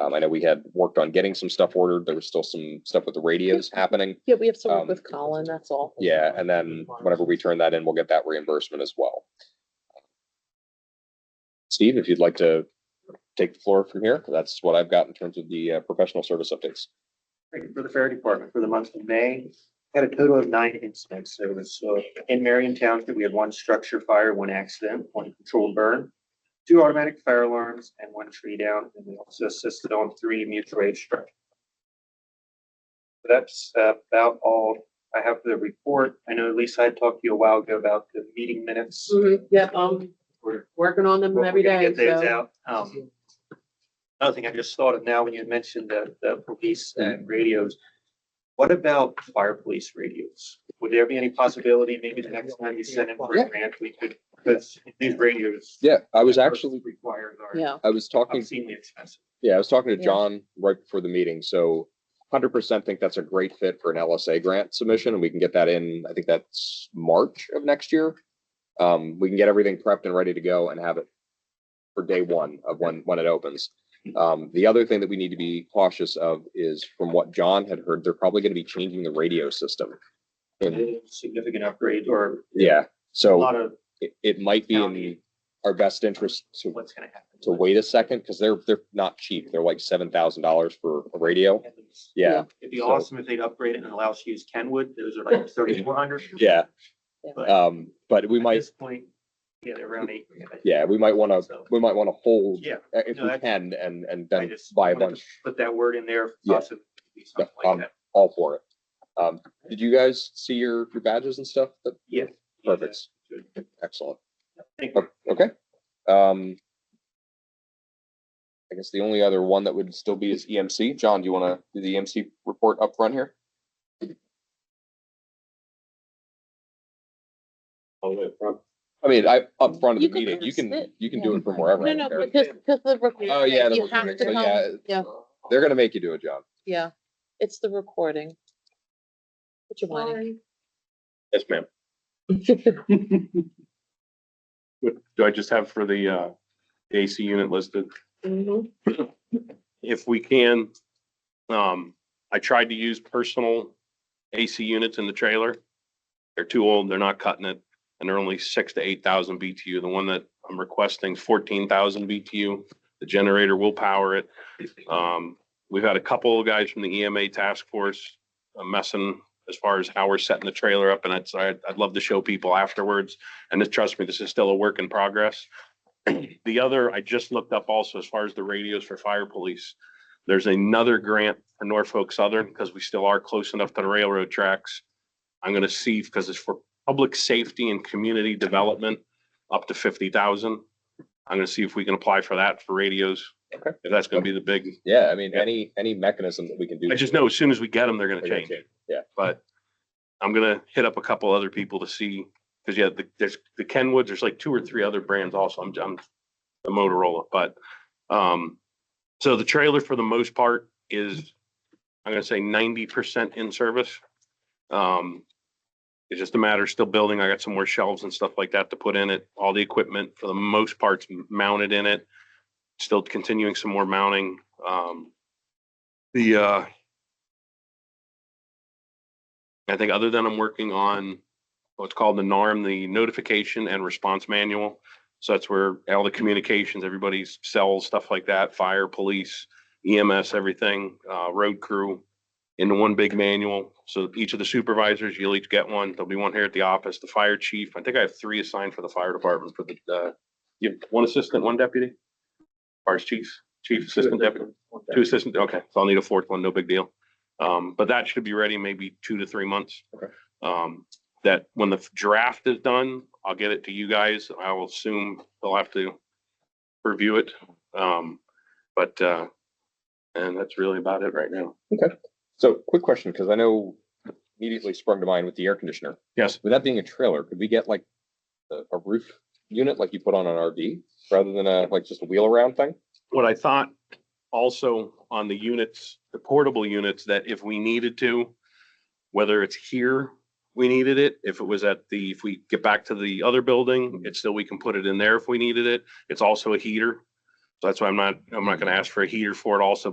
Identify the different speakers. Speaker 1: Um, I know we had worked on getting some stuff ordered. There was still some stuff with the radios happening.
Speaker 2: Yeah, we have to
Speaker 1: Um,
Speaker 2: work with Colin, that's all.
Speaker 1: Yeah, and then whenever we turn that in, we'll get that reimbursement as well. Steve, if you'd like to take the floor from here, that's what I've got in terms of the uh, professional service updates.
Speaker 3: Thank you For the fire department for the month of May, had a total of nine incidents. There was, uh, in Marion Township, we had one structure fire, one accident, one controlled burn, two automatic fire alarms and one tree down. And we also assisted on three mutual aid structures. That's about all I have for the report. I know Lisa had talked to you a while ago about the meeting minutes.
Speaker 2: Mhm, Yep, I'm
Speaker 3: We're-
Speaker 2: working on them
Speaker 3: we're
Speaker 2: every
Speaker 3: gonna
Speaker 2: day,
Speaker 3: Get those
Speaker 2: so.
Speaker 3: out. Um, Another thing I just thought of now when you mentioned the, the police and radios. What about fire police radios? Would there be any possibility, maybe the next time you send in for
Speaker 1: Yeah.
Speaker 3: a grant, we could, because these radios.
Speaker 1: Yeah, I was actually,
Speaker 3: Required are
Speaker 2: Yeah,
Speaker 1: I was talking,
Speaker 3: obscenely expensive.
Speaker 1: yeah, I was talking to
Speaker 2: Yeah.
Speaker 1: John right before the meeting, so hundred percent think that's a great fit for an LSA grant submission, and we can get that in, I think that's March of next year. Um, we can get everything prepped and ready to go and have it for day one of when, when it opens. Um, the other thing that we need to be cautious of is from what John had heard, they're probably gonna be changing the radio system. And,
Speaker 3: Significant upgrade or
Speaker 1: yeah,
Speaker 3: a
Speaker 1: so
Speaker 3: lot of
Speaker 1: it, it might be in our best interest to
Speaker 3: what's gonna happen.
Speaker 1: to wait a second because they're they're not cheap. They're like seven thousand dollars for a radio. Yeah,
Speaker 3: It'd be
Speaker 1: So-
Speaker 3: awesome if they'd upgrade it and allow us to use Kenwood. Those are like thirty-four hundred.
Speaker 1: yeah.
Speaker 3: But
Speaker 1: Um, but we
Speaker 3: at
Speaker 1: might,
Speaker 3: this point, yeah, they're around eight. grand, I think.
Speaker 1: yeah, we might want to,
Speaker 3: So,
Speaker 1: we might want to hold
Speaker 3: Yeah.
Speaker 1: uh, if
Speaker 3: No,
Speaker 1: we
Speaker 3: that's-
Speaker 1: can and and
Speaker 3: I
Speaker 1: then
Speaker 3: just
Speaker 1: buy a
Speaker 3: wanted to
Speaker 1: bunch
Speaker 3: Put that word in there,
Speaker 1: Yeah.
Speaker 3: possibly something
Speaker 1: Yeah,
Speaker 3: like
Speaker 1: um,
Speaker 3: that.
Speaker 1: all for it. Um, did you guys see your your badges and stuff? That-
Speaker 3: Yeah.
Speaker 1: Perfect. Excellent.
Speaker 3: Thank
Speaker 1: O- Okay. Um, I guess the only other one that would still be is EMC. John, do you want to do the EMC report up front here? I mean, I up front of the
Speaker 2: You can
Speaker 1: meeting, you can
Speaker 2: sit,
Speaker 1: you can do
Speaker 2: yeah.
Speaker 1: it from wherever.
Speaker 2: No,
Speaker 1: I
Speaker 2: no,
Speaker 1: don't care.
Speaker 2: because, because the
Speaker 1: Oh, yeah.
Speaker 2: recording,
Speaker 1: the
Speaker 2: you have
Speaker 1: recording,
Speaker 2: to
Speaker 1: so yeah,
Speaker 2: come, yeah,
Speaker 1: They're gonna make you do it, John.
Speaker 2: yeah, it's the recording. Put your money.
Speaker 1: Yes, ma'am.
Speaker 4: What do I just have for the uh AC unit listed?
Speaker 2: Mhm.
Speaker 4: If we can, um, I tried to use personal AC units in the trailer. They're too old, they're not cutting it, and they're only six to eight thousand BTU. The one that I'm requesting fourteen thousand BTU. The generator will power it. Um, we've had a couple of guys from the EMA task force uh, messing as far as how we're setting the trailer up, and I'd, I'd I'd love to show people afterwards. And this, trust me, this is still a work in progress. The other, I just looked up also as far as the radios for fire police. There's another grant for Norfolk Southern because we still are close enough to the railroad tracks. I'm gonna see because it's for public safety and community development, up to fifty thousand. I'm gonna see if we can apply for that for radios.
Speaker 1: Okay.
Speaker 4: If that's gonna be the big,
Speaker 1: Yeah, I mean,
Speaker 4: Yeah.
Speaker 1: any any mechanism that we can do.
Speaker 4: I just know as soon as we get them, they're gonna
Speaker 1: They're gonna
Speaker 4: change.
Speaker 1: change. Yeah.
Speaker 4: But I'm gonna hit up a couple other people to see, because yeah, the- there's the Kenwoods, there's like two or three other brands also. I'm, I'm the Motorola, but um, so the trailer for the most part is, I'm gonna say ninety percent in service. Um, it's just a matter of still building. I got some more shelves and stuff like that to put in it. All the equipment for the most part's mounted in it. Still continuing some more mounting. Um, the uh, I think other than I'm working on what's called the NARM, the notification and response manual. So that's where all the communications, everybody's cells, stuff like that, fire, police, EMS, everything, uh, road crew into one big manual. So each of the supervisors, you'll each get one. There'll be one here at the office, the fire chief. I think I have three assigned for the fire department for the, uh, you have one assistant, one deputy? Fire chief, chief assistant deputy. Two assistant, okay, so I'll need a fourth one, no big deal. Um, but that should be ready maybe two to three months.
Speaker 1: Okay.
Speaker 4: Um, that when the draft is done, I'll get it to you guys. I will assume they'll have to review it. Um, but, uh, and that's really about it right now.
Speaker 1: So, quick question, because I know immediately sprung to mind with the air conditioner.
Speaker 4: Yes.
Speaker 1: With that being a trailer, could we get like a, a roof unit like you put on an RV rather than a like just a wheel around thing?
Speaker 4: What I thought also on the units, the portable units, that if we needed to, whether it's here, we needed it, if it was at the, if we get back to the other building, it's still, we can put it in there if we needed it. It's also a heater. So that's why I'm not, I'm not gonna ask for a heater for it also,